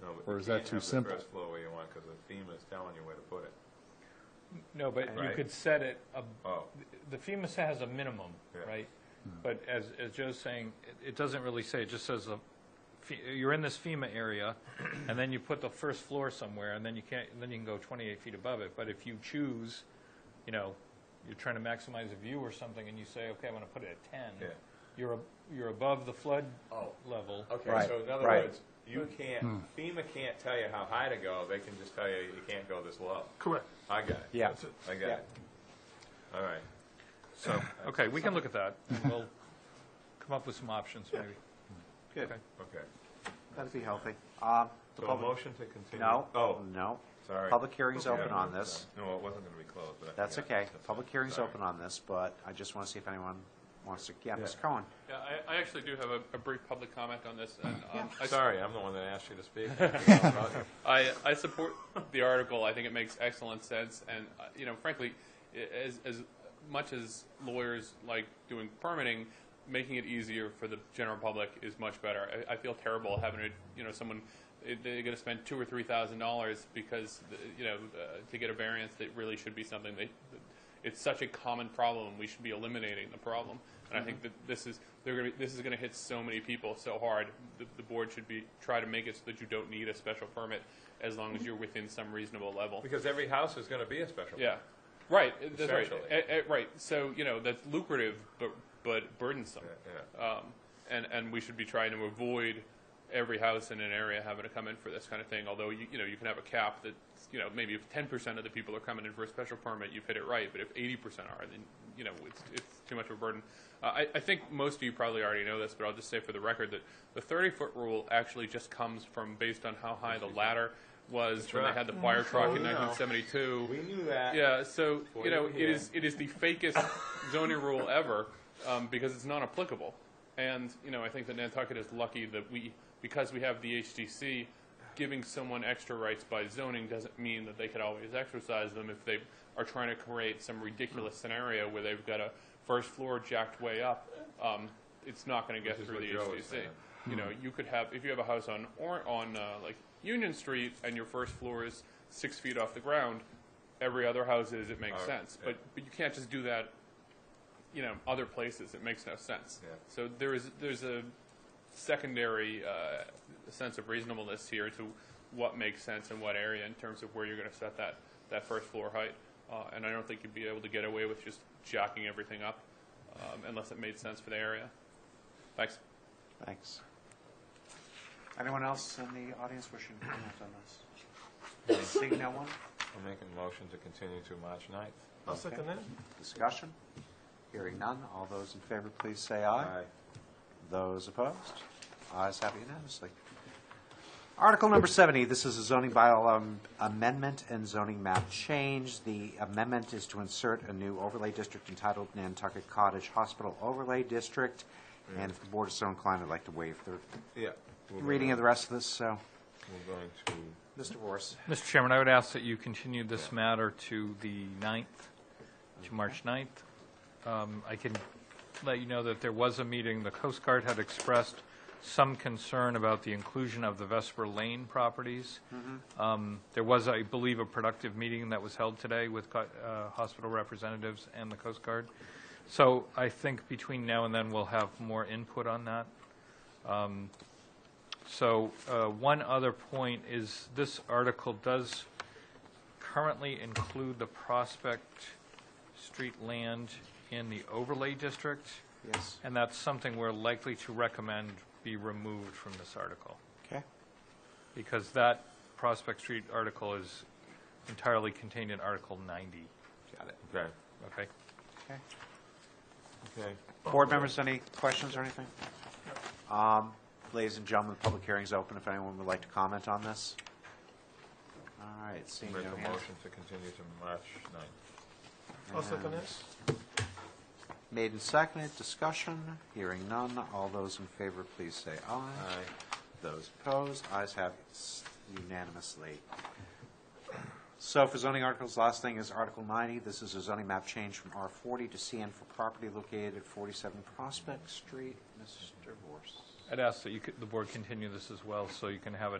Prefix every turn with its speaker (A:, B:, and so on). A: but
B: Or
A: you
B: is that
A: can't
B: too
A: have the
B: simple?
A: first floor where you want, because the FEMA's telling you where to put it.
C: No, but you
A: Right.
C: could set it, ab-
A: Oh,
C: the FEMA has a minimum,
A: Yeah. Hmm.
C: right? But as, as Joe's saying, it- it doesn't really say, it just says, the fe- you're in this FEMA area, and then you put the first floor somewhere, and then you can't, then you can go 28 feet above it. But if you choose, you know, you're trying to maximize a view or something, and you say, okay, I'm going to put it at 10,
A: Yeah.
C: you're, ab- you're above the flood
A: Oh.
C: level.
A: okay,
D: Right,
A: so in other
D: right.
A: words, you can't, FEMA can't tell you how high to go, they can just tell you, you can't go this low.
E: Correct.
A: I got it.
D: Yeah.
A: That's it. I got
D: Yeah.
A: it. All right.
C: So, okay, we can look at that, and we'll come up with some options, maybe.
D: Good.
C: Okay.
A: Okay.
D: That'd be healthy. Um, the
A: So a
D: public-
A: motion to continue?
D: No.
A: Oh,
D: No.
A: sorry.
D: Public hearing's
A: Yeah,
D: open on
A: sorry.
D: this.
A: No, it wasn't going to be closed, but I
D: That's
A: forgot.
D: okay. Public hearing's
A: Sorry.
D: open on this, but I just want to see if anyone wants to, yeah, Ms. Cohen.
F: Yeah, I, I actually do have a, a brief public comment on this, and, um, I, s-
A: Sorry, I'm the one that asked you to speak. Right.
F: I, I support the article, I think it makes excellent sense, and, uh, you know, frankly, i- as, as much as lawyers like doing permitting, making it easier for the general public is much better. I, I feel terrible having to, you know, someone, eh, they're gonna spend two or three thousand dollars because, the- you know, uh, to get a variance that really should be something they, it's such a common problem. We should be eliminating the problem. And I think that this is they're gonna, be- this is going to hit so many people so hard. The, the board should be try to make it so that you don't need a special permit as long as you're within some reasonable level.
A: Because every house is going to be a special.
F: Yeah, right. That's right.
A: Essentially.
F: Eh, eh, right. So you know that's lucrative, but but burdensome.
A: Yeah, yeah.
F: Um, and and we should be trying to avoid every house in an area having to come in for this kind of thing. Although you you know you can have a cap that you know maybe if ten percent of the people are coming in for a special permit, you've hit it right. But if eighty percent are, then you know it's it's too much of a burden. Uh, I, I think most of you probably already know this, but I'll just say for the record that the thirty foot rule actually just comes from based on how high the ladder was when
A: right.
F: they had the fire truck
A: Oh,
F: in
A: no.
F: 1972.
A: We knew that.
F: Yeah, so
A: Before
F: you know,
A: you-
F: it
A: yeah.
F: is it is the fakest zoning rule ever um, because it's non applicable. And you know, I think that Nantucket is lucky that we because we have the HDC giving someone extra rights by zoning doesn't mean that they could always exercise them if they are trying to create some ridiculous
A: Hmm.
F: scenario where they've got a first floor jacked way up. Um, it's not going to get
A: Which is
F: through
A: what
F: the
A: Joe
F: HDC.
A: was saying.
F: You know, you could have if you have a house on or on uh, like Union Street and your first floor is six feet off the ground. Every other house is. It makes
A: Uh,
F: sense,
A: yeah.
F: but but you can't just do that. You know, other places it makes no sense.
A: Yeah.
F: So there is there's a secondary uh, sense of reasonableness here to what makes sense in what area in terms of where you're going to set that that first floor height. Uh, and I don't think you'd be able to get away with just jacking everything up um, unless it made sense for the area. Thanks.
D: Thanks. Anyone else in the audience wishing to comment on this? Seeing no one?
A: I'm making a motion to continue to March 9th.
E: I'll second that.
D: Discussion? Hearing none. All those in favor, please say aye. Those opposed? Ayes have it unanimously. Article number 70, this is a zoning bylaw um, amendment and zoning map change. The amendment is to insert a new overlay district entitled Nantucket Cottage Hospital Overlay District, and if the board is so inclined, I'd like to waive the
A: Yeah.
D: reading of the rest of this, so,
A: We're going to,
D: Mr. Morse.
C: Mr. Chairman, I would ask that you continue this matter to the 9th, to March 9th. Um, I can let you know that there was a meeting, the Coast Guard had expressed some concern about the inclusion of the Vesper Lane properties. Um, There was, I believe, a productive meeting that was held today with co- uh, hospital representatives and the Coast Guard. So I think between now and then, we'll have more input on that. So uh, one other point is this article does currently include the Prospect Street land in the overlay district,
D: Yes.
C: and that's something we're likely to recommend be removed from this article,
D: Okay.
C: because that Prospect Street article is entirely contained in Article 90,
D: Got it.
A: okay,
C: okay?
D: Okay.
A: okay.
D: Board members, any questions or anything? Um, Ladies and gentlemen, the public hearing's open if anyone would like to comment on this. All right, seeing no
A: Make a
D: hands.
A: motion to continue to March 9th.
E: I'll second that.
D: Made and seconded, discussion, hearing none. All those in favor, please say aye. Those opposed, ayes have it unanimously. So for zoning articles, last thing is Article 90. This is a zoning map change from R40 to CN for property located at 47 Prospect Street. Mr. Vorse.
C: I'd ask that you, could- the board continue this as well, so you can have a